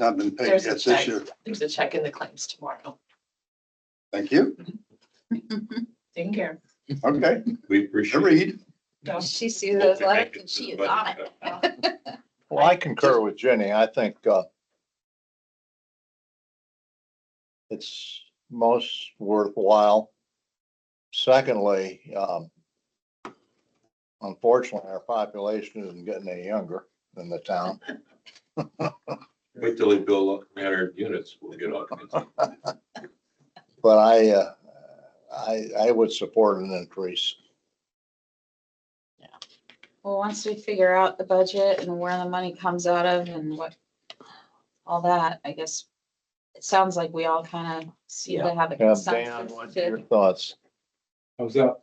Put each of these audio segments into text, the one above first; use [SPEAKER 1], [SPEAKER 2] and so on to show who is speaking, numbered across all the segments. [SPEAKER 1] not been paid.
[SPEAKER 2] There's a
[SPEAKER 1] That's this
[SPEAKER 2] check.
[SPEAKER 1] year.
[SPEAKER 2] There's a check in the claims tomorrow.
[SPEAKER 1] Thank you.
[SPEAKER 2] Taking care.
[SPEAKER 1] Okay,
[SPEAKER 3] We
[SPEAKER 1] I
[SPEAKER 3] appreciate.
[SPEAKER 1] read.
[SPEAKER 2] No,
[SPEAKER 4] She sees those letters and she is on
[SPEAKER 3] uh,
[SPEAKER 4] it.
[SPEAKER 5] Well, I concur with Jenny. I think, uh, it's most worthwhile. Secondly, um, unfortunately, our population isn't getting any younger than the town.
[SPEAKER 3] Wait till they build up 300 units, we'll get all kinds of.
[SPEAKER 5] But I, uh, I, I would support an increase.
[SPEAKER 4] Well, once we figure out the budget and where the money comes out of and what, all that, I guess. It sounds like we all kind of seem to have a
[SPEAKER 5] Uh, Dan,
[SPEAKER 4] consensus
[SPEAKER 5] what's your
[SPEAKER 4] to
[SPEAKER 5] thoughts?
[SPEAKER 6] How's that?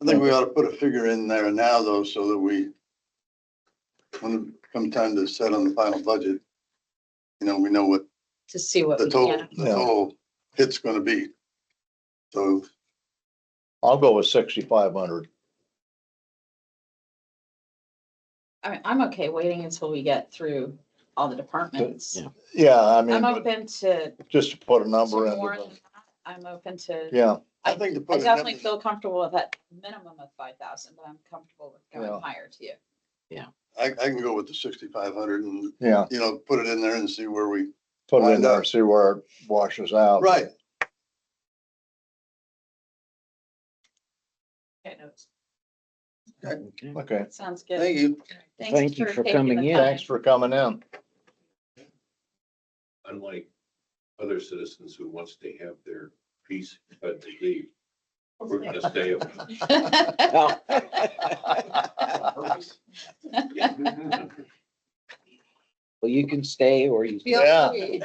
[SPEAKER 1] I think we ought to put a figure in there now though, so that we, when it come time to set on the final budget, you know, we know what
[SPEAKER 4] to see what
[SPEAKER 1] the
[SPEAKER 4] we
[SPEAKER 1] total, the
[SPEAKER 4] can.
[SPEAKER 1] total hit's gonna be. So
[SPEAKER 5] I'll go with sixty-five hundred.
[SPEAKER 4] I mean, I'm okay waiting until we get through all the departments.
[SPEAKER 5] Yeah, I mean,
[SPEAKER 4] I'm
[SPEAKER 5] but
[SPEAKER 4] open to
[SPEAKER 5] just to put a
[SPEAKER 4] to
[SPEAKER 5] number in.
[SPEAKER 4] more than that. I'm open to,
[SPEAKER 5] Yeah.
[SPEAKER 1] I think to
[SPEAKER 4] I
[SPEAKER 1] put a
[SPEAKER 4] definitely
[SPEAKER 1] number,
[SPEAKER 4] feel comfortable with that minimum of five thousand, but I'm comfortable with
[SPEAKER 5] Yeah.
[SPEAKER 4] going higher to you.
[SPEAKER 1] I, I can go with the sixty-five hundred and,
[SPEAKER 5] Yeah,
[SPEAKER 1] you know, put it in there and see where we,
[SPEAKER 5] put
[SPEAKER 1] Why
[SPEAKER 5] it in there
[SPEAKER 1] not?
[SPEAKER 5] and see where it washes out.
[SPEAKER 1] right,
[SPEAKER 2] I know it's-
[SPEAKER 5] Okay,
[SPEAKER 4] That sounds
[SPEAKER 1] thank
[SPEAKER 4] good.
[SPEAKER 1] you.
[SPEAKER 4] Thanks
[SPEAKER 7] Thank you
[SPEAKER 4] taking
[SPEAKER 7] for
[SPEAKER 4] the
[SPEAKER 7] coming in.
[SPEAKER 4] time.
[SPEAKER 5] thanks for coming in.
[SPEAKER 3] Unlike other citizens who wants to have their piece, but they leave. We're gonna stay.
[SPEAKER 5] Well,
[SPEAKER 7] Well, you can stay or you.
[SPEAKER 4] Feel
[SPEAKER 5] Yeah.
[SPEAKER 4] free.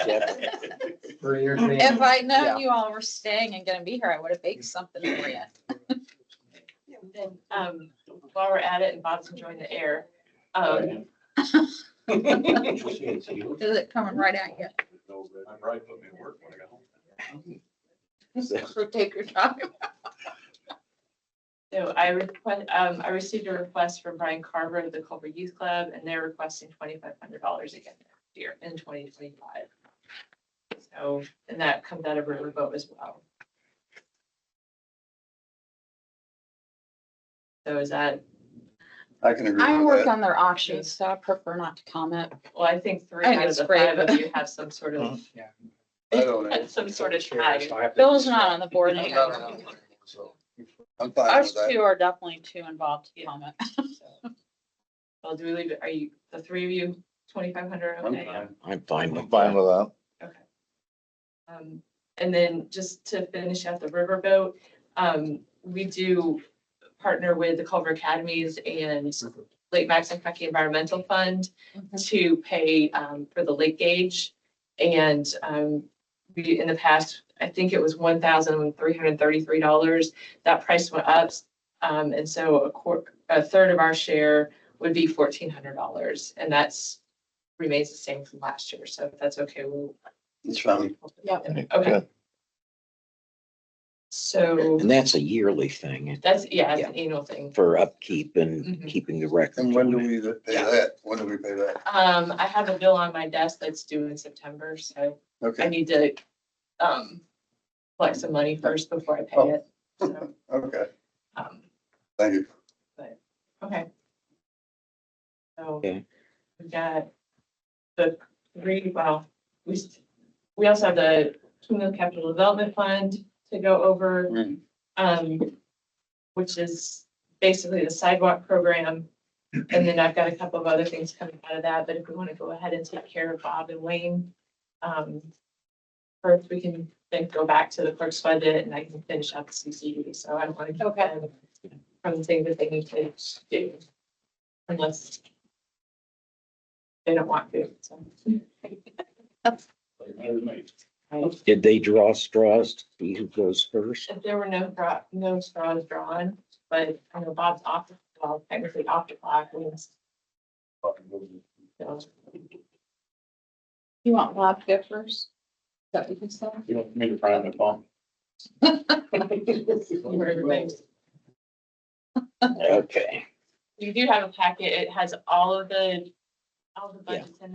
[SPEAKER 6] For your
[SPEAKER 4] If
[SPEAKER 6] family.
[SPEAKER 4] I
[SPEAKER 7] Yeah.
[SPEAKER 4] known you all were staying and gonna be here, I would have baked something for you.
[SPEAKER 2] Then, um, while we're at it and Bob's enjoying the air, um,
[SPEAKER 4] Is it coming right at you?
[SPEAKER 3] I'm right, put me to work when I got home.
[SPEAKER 4] So take your time.
[SPEAKER 2] so I request, um, I received a request from Brian Carver of the Culver Youth Club and they're requesting twenty-five hundred dollars again next year in twenty twenty-five. So, and that comes out of river boat as well. So is that,
[SPEAKER 1] I can agree
[SPEAKER 4] I
[SPEAKER 1] with
[SPEAKER 4] work
[SPEAKER 1] that.
[SPEAKER 4] on their auctions, so I prefer not to comment.
[SPEAKER 2] well, I think three
[SPEAKER 4] I think
[SPEAKER 2] out of
[SPEAKER 4] it's
[SPEAKER 2] the
[SPEAKER 4] great,
[SPEAKER 2] five of
[SPEAKER 4] but-
[SPEAKER 2] you have some sort of,
[SPEAKER 1] I don't,
[SPEAKER 2] some sort of tag.
[SPEAKER 4] Bill's not on the board anymore.
[SPEAKER 6] Well,
[SPEAKER 1] I'm fine with
[SPEAKER 4] Us
[SPEAKER 1] that.
[SPEAKER 4] two are definitely too involved to comment.
[SPEAKER 2] Well, do we leave, it? are you, the three of you, twenty-five hundred,
[SPEAKER 1] I'm fine.
[SPEAKER 2] okay? yeah.
[SPEAKER 7] I'm fine
[SPEAKER 5] I'm
[SPEAKER 7] with
[SPEAKER 5] fine
[SPEAKER 7] that.
[SPEAKER 5] with that.
[SPEAKER 2] Um, and then just to finish out the riverboat, um, we do partner with the Culver Academies and Lake Maxon Kentucky Environmental Fund to pay, um, for the lake gauge. And, um, we, in the past, I think it was one thousand three hundred thirty-three dollars. That price went up. Um, and so a quarter, a third of our share would be fourteen hundred dollars. And that's remains the same from last year. So if that's okay, we'll
[SPEAKER 1] It's fine.
[SPEAKER 4] Yep.
[SPEAKER 2] Okay,
[SPEAKER 5] Good.
[SPEAKER 2] so
[SPEAKER 7] And that's a yearly thing
[SPEAKER 2] that's, yeah, it's an annual thing.
[SPEAKER 7] for upkeep and
[SPEAKER 2] Mhm.
[SPEAKER 7] keeping the record.
[SPEAKER 1] And when do we pay that? When do we pay that?
[SPEAKER 2] Um, I have a bill on my desk that's due in September, so I
[SPEAKER 1] Okay,
[SPEAKER 2] need to, um, collect some money first before I pay it. So,
[SPEAKER 1] okay,
[SPEAKER 2] um,
[SPEAKER 1] thank you.
[SPEAKER 2] okay. So
[SPEAKER 7] Okay.
[SPEAKER 2] we've got the three, well, we, s- we also have the Kingdom Capital Development Fund to go over.
[SPEAKER 1] Mm.
[SPEAKER 2] um, which is basically the sidewalk program. And then I've got a couple of other things coming out of that, but if we want to go ahead and take care of Bob and Wayne, um, first we can then go back to the clerk's budget and I can finish up the CCD, so I don't want to keep
[SPEAKER 4] Okay.
[SPEAKER 2] them from the thing that they need to do unless they don't want to, so.
[SPEAKER 7] Did they draw straws to see who goes first?
[SPEAKER 2] If there were no draw, no straws drawn, but I know Bob's off, well, technically off the clock, we must, you know,
[SPEAKER 4] You want Bob to go first? Is that what you said?
[SPEAKER 6] You want me to prime the pump?
[SPEAKER 2] where everybody's-
[SPEAKER 7] Okay.
[SPEAKER 2] You do have a packet. It has all of the all the budgets in there.